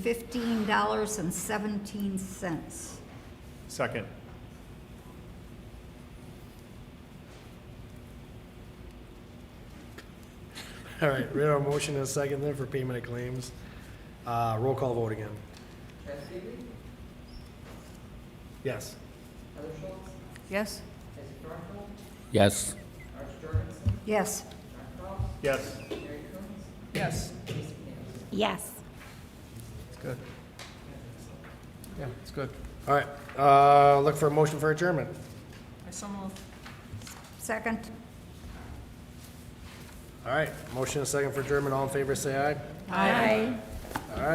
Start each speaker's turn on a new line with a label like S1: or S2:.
S1: fifteen dollars and seventeen cents.
S2: Second.
S3: All right, we have a motion and a second then for payment of claims. Uh, roll call vote again.
S4: Trustee Reed,
S3: Yes.
S4: Heather Schultz,
S5: Yes?
S4: Isaac Rocco,
S6: Yes,
S4: Arch Jorgensen,
S1: Yes,
S4: John Kraus,
S2: Yes.
S4: Mary Coombs,
S5: Yes.
S4: Lisa Campbell.
S7: Yes.
S5: It's good. Yeah, it's good.
S3: All right, uh, look for a motion for adjournment.
S5: I so move.
S1: second?
S3: All right, motion and a second for adjournment. All in favor, say aye.
S7: Aye.